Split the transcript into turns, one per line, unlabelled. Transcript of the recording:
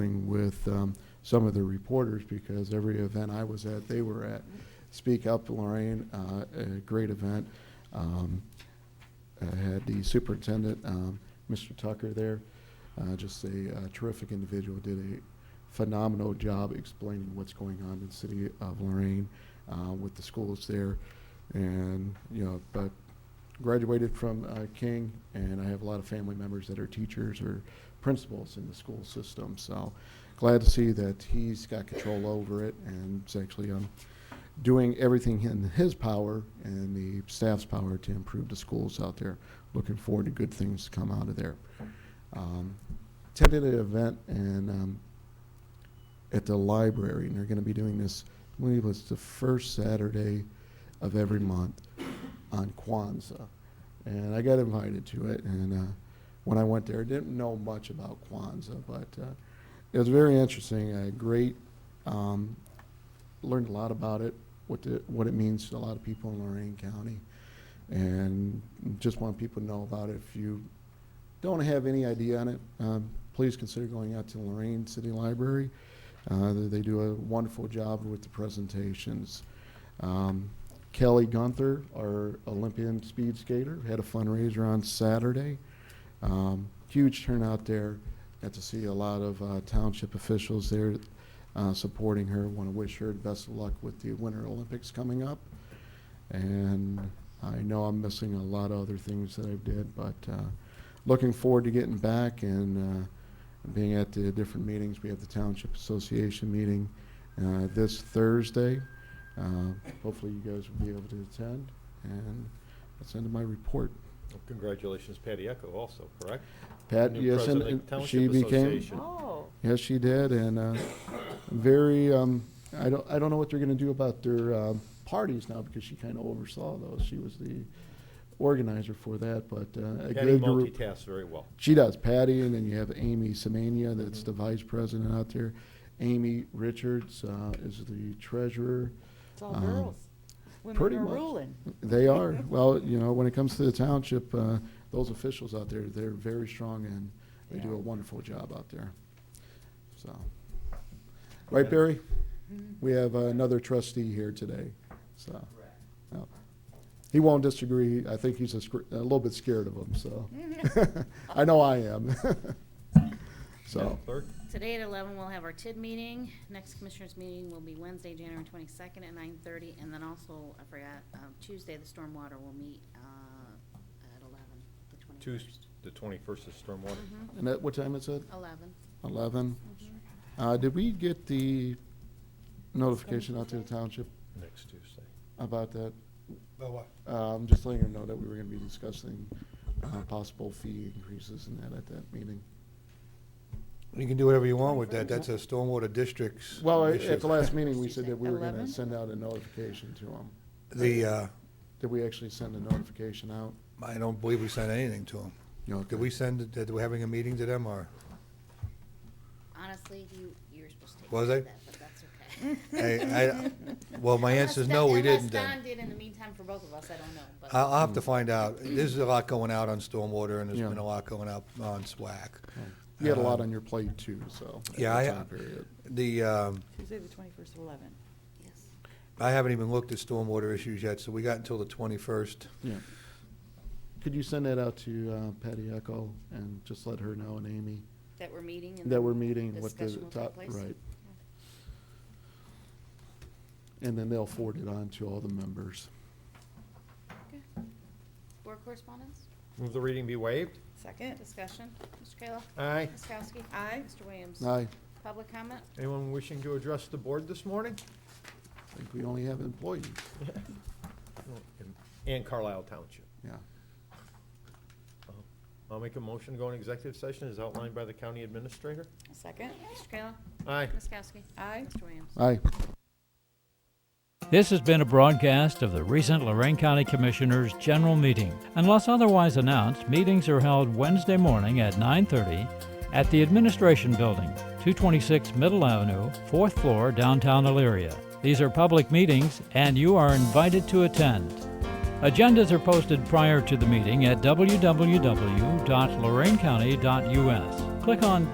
with um, some of the reporters because every event I was at, they were at. Speak Up Lorraine, uh, a great event. Um, I had the superintendent, um, Mr. Tucker there, uh, just a uh, terrific individual, did a phenomenal job explaining what's going on in the city of Lorraine uh, with the schools there. And, you know, but graduated from uh, King, and I have a lot of family members that are teachers or principals in the school system. So glad to see that he's got control over it and is actually um, doing everything in his power and the staff's power to improve the schools out there. Looking forward to good things to come out of there. Um, attended an event and um, at the library, and they're going to be doing this. I believe it's the first Saturday of every month on Kwanzaa, and I got invited to it. And uh, when I went there, I didn't know much about Kwanzaa, but uh, it was very interesting. A great, um, learned a lot about it, what the, what it means to a lot of people in Lorraine County, and just want people to know about it. If you don't have any idea on it, um, please consider going out to Lorraine City Library. Uh, they they do a wonderful job with the presentations. Um, Kelly Gunther, our Olympian speed skater, had a fundraiser on Saturday. Um, huge turnout there. Got to see a lot of uh, township officials there uh, supporting her. Want to wish her the best of luck with the Winter Olympics coming up. And I know I'm missing a lot of other things that I did, but uh, looking forward to getting back and uh, being at the different meetings. We have the Township Association meeting uh, this Thursday. Uh, Hopefully you guys will be able to attend, and that's the end of my report.
Congratulations, Patty Echo also, correct?
Pat,
New
yes, and
president of
and
Township
she became,
Association.
Oh,
yes, she did, and uh, very, um, I don't, I don't know what they're going to do about their um, parties now, because she kind of oversaw those. She was the organizer for that, but uh, a
Patty
good group.
multitasks very well.
She does Patty, and then you have Amy Semenya,
Mm-hmm.
that's the vice president out there. Amy Richards uh, is the treasurer.
it's all
Um,
girls.
pretty
Women are
much.
ruling.
They are, well, you know, when it comes to the township, uh, those officials out there, they're very strong and they do a
Yeah.
wonderful job out there. So, right, Barry?
Mm-hmm.
We have another trustee here today, so. yeah. He won't disagree. I think he's a scr- a little bit scared of him, so. I know I am. So,
Madam Clerk,
Today at eleven, we'll have our TID meeting. Next commissioners' meeting will be Wednesday, January twenty-second at nine-thirty, and then also, I forgot, um, Tuesday, the stormwater will meet, uh, at eleven, the
Tuesday,
twenty-first.
the 21st
Mm-hmm,
is Stormwater.
and at what time is it?
Eleven.
Eleven? Uh, did we get the notification out to the township
Next Tuesday.
about that?
About what?
Um, just letting her know that we were gonna be discussing, uh, possible fee increases and that at that meeting.
You can do whatever you want with that, that's a stormwater district's
Well, at
issue.
at the last meeting, we said that we were
Eleven?
gonna send out a notification to them.
The, uh,
Did we actually send a notification out?
I don't believe we sent anything to them.
You know,
Did we send, it that we're having a meeting to them, or,
Honestly, you, you were supposed to take.
Was
care
I?
of that, But that's okay.
I, I, well, my answer is no, we
Unless-
didn't
Unless
then.
Don did in the meantime for both of us, I don't know, but.
I'll, I'll have to find out, there's a lot going out on stormwater, and
Hmm. Yeah.
there's been a lot going out on SWAC.
You had a lot
Um,
on your plate too, so. at
yeah,
the
I-
time period.
The, um,
Tuesday, the twenty-first, eleven.
Yes.
I haven't even looked at stormwater issues yet, so we got until the twenty-first.
Yeah. Could you send that out to uh, Patty Echo and just let her know and Amy
That we're meeting and.
that we're meeting with the
Discussion will take
top,
place.
right? And then they'll forward it on to all the members.
Okay. Board correspondence,
Move the reading be waived.
Second?
discussion, Mr. Kayla.
Aye.
Ms. Kowski.
Aye.
Mr. Williams.
I
Public comment?
Anyone wishing to address the board this morning?
think we only have employees,
And Carlisle Township.
yeah.
I'll make a motion to go in executive session as outlined by the county administrator.
Second?
Mr. Kayla.
Aye.
Ms. Kowski.
Aye.
Mr. Williams.
Aye.
This has been a broadcast of the recent Lorraine County Commissioners' General Meeting. Unless otherwise announced, meetings are held Wednesday morning at 9:30 at the Administration Building, 226 Middle Avenue, 4th floor, downtown Elyria. These are public meetings and you are invited to attend. Agendas are posted prior to the meeting at www.lorainecounty.us. Click on